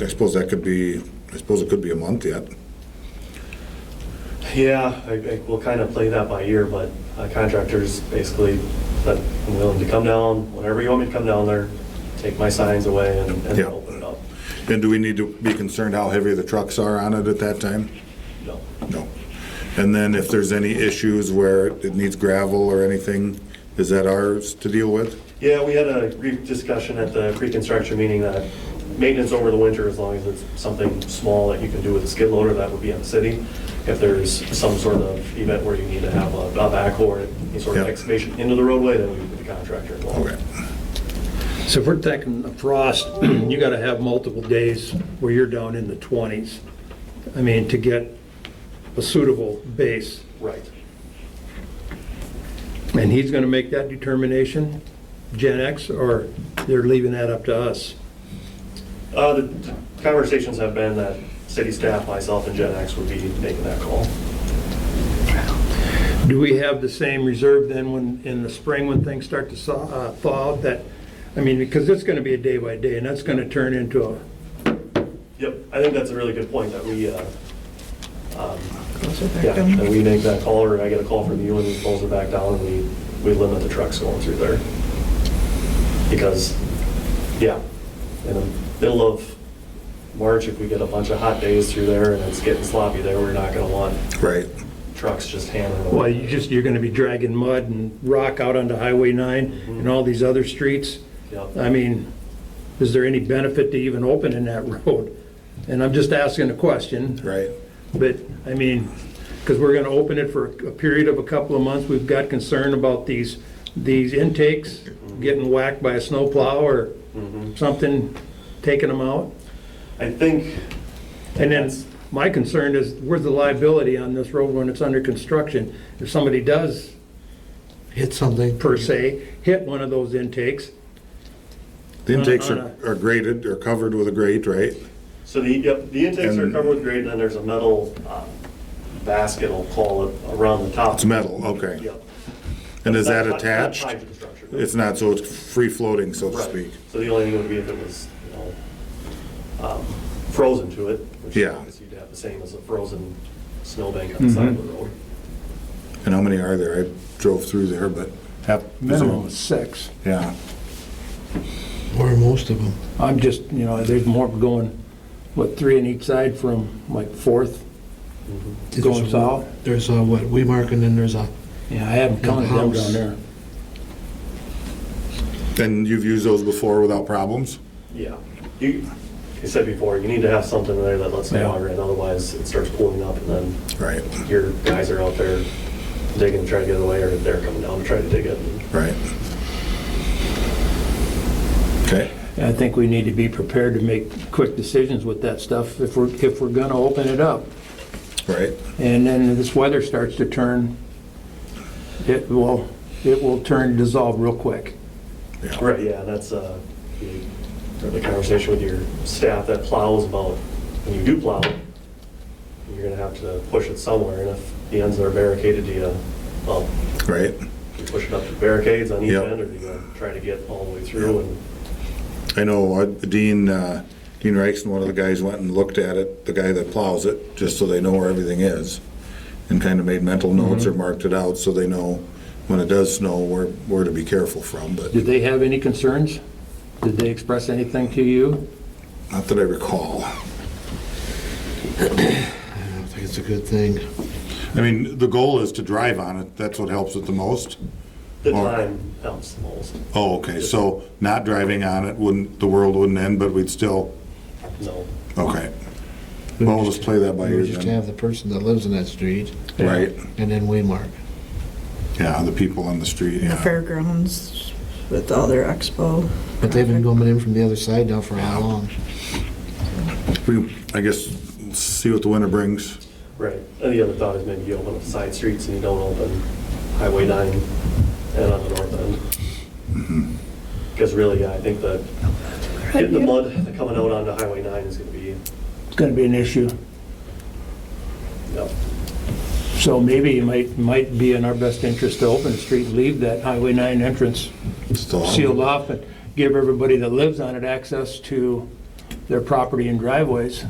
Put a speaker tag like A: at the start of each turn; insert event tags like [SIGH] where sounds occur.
A: I suppose that could be, I suppose it could be a month yet.
B: Yeah, I, I, we'll kind of play that by ear, but uh, contractors basically, but I'm willing to come down, whenever you want me to come down there, take my signs away and, and
A: Yeah.
B: open it up.
A: And do we need to be concerned how heavy the trucks are on it at that time?
B: You know,
A: No. And then if there's any issues where it needs gravel or anything, is that ours to deal with?
B: Yeah, we had a brief discussion at the pre-construction meeting that maintenance over the winter, as long as it's something small that you can do with a skid loader, that would be on the city. If there's some sort of event where you need to have a a backhoe or any sort of
A: Yeah.
B: excavation into the roadway, then we would be the contractor involved.
A: Okay.
C: So if we're taking a frost, [CLEARS THROAT] you gotta have multiple days where you're down in the 20s. I mean, to get a suitable base.
B: Right.
C: And he's gonna make that determination, Gen X, or they're leaving that up to us?
B: Uh, the the conversations have been that city staff, myself, and Gen X would be making that call.
C: Do we have the same reserve then when, in the spring when things start to saw- uh, thaw out that, I mean, because it's gonna be a day by day and that's gonna turn into a,
B: Yep, I think that's a really good point, that we, uh, um,
D: Those are
B: yeah,
D: their dumb-
B: that we make that call, or I get a call from you, and we pulls it back down, and we, we limit the trucks going through there. Because, yeah, in the middle of March, if we get a bunch of hot days through there and it's getting sloppy there, we're not gonna want
A: Right.
B: trucks just hammering.
C: well, you just, you're gonna be dragging mud and rock out onto Highway 9 and all these other streets.
B: Yep.
C: I mean, is there any benefit to even opening that [LAUGHS] road? And I'm just asking a question.
A: Right.
C: But, I mean, because we're gonna open it for a period of a couple of months, we've got concern about these, these intakes getting whacked by a snowplow or something, taking them out.
B: I think,
C: And then, my concern is, where's the liability on this road when it's under construction? If somebody does,
E: hit something.
C: per se, hit one of those intakes,
A: The
C: On a-
A: intakes
C: on
A: are are graded, are covered with a grate, right?
B: So the, yep, the intakes are
A: And-
B: covered with grade, and then there's a metal uh, basket, I'll call it, around the top.
A: It's metal, okay.
B: Yep.
A: And is that
B: Not- not
A: attached?
B: tied to the structure.
A: It's not, so it's free floating, so to
B: Right.
A: speak.
B: So the only thing would be if it was, you know, um, frozen to it, which
A: Yeah.
B: is you'd have the same as a frozen snowbank on the side of the road.
A: And how many are there? I drove through there, but half.
C: minimum of six.
A: Yeah.
E: Or most of them.
C: I'm just, you know, there's more going, what, three on each side from like Fourth going
E: There's a-
C: south?
E: There's a, what, Weemark, and then there's a,
C: Yeah, I haven't counted them down there.
A: And you've used those before without problems?
B: Yeah. You, you said before, you need to have something there that lets the
C: Yeah.
B: water in, otherwise it starts pulling up, and then
A: Right,
B: your guys are out there digging, to try to get away, or they're coming down to try to dig it.
A: right. Okay,
C: I think we need to be prepared to make quick decisions with that stuff if we're, if we're gonna open it up.
A: right.
C: And then this weather starts to turn, it will, it will turn, dissolve real quick.
A: Yeah.
B: Right, yeah, that's, uh, the the conversation with your staff that plows about, when you do plow, you're gonna have to push it somewhere, and if the ends are barricaded, do you, well,
A: Right.
B: you push it up to barricades on each
A: Yep.
B: end, or do you try to get all the way through and,
A: I know uh, Dean, uh, Dean Reichson, one of the guys went and looked at it, the guy that plows it, just so they know where everything is. And kind of made mental notes or marked it out so they know when it does snow where, where to be careful from, but
C: Did they have any concerns? Did they express anything to you?
A: not that I recall.
E: I don't think it's a good thing.
A: I mean, the goal is to drive on it, that's what helps it the most.
B: the
A: Or-
B: time helps the most,
A: Oh, okay, so not driving on it wouldn't, the world wouldn't end, but we'd still,
B: no.
A: okay. Well, we'll just play that by ear
E: We just
A: then,
E: have the person that lives in that street,
A: right?
E: and then Weemark.
A: Yeah, the people on the street,
D: The
A: yeah.
D: fairgrounds with all their expo.
E: But they've been going in from the other side now for how long?
A: We, I guess, see what the winter brings.
B: Right, and the other thought is maybe you open up side streets and you don't open Highway 9 and on the north end. Because really, yeah, I think that getting the mud coming out onto Highway 9 is going to be,
C: It's gonna be an issue.
B: yep,
C: So maybe it might, might be in our best interest to open the street, leave that Highway 9 entrance
A: Still-
C: sealed off, and give everybody that lives on it access to their property and driveways.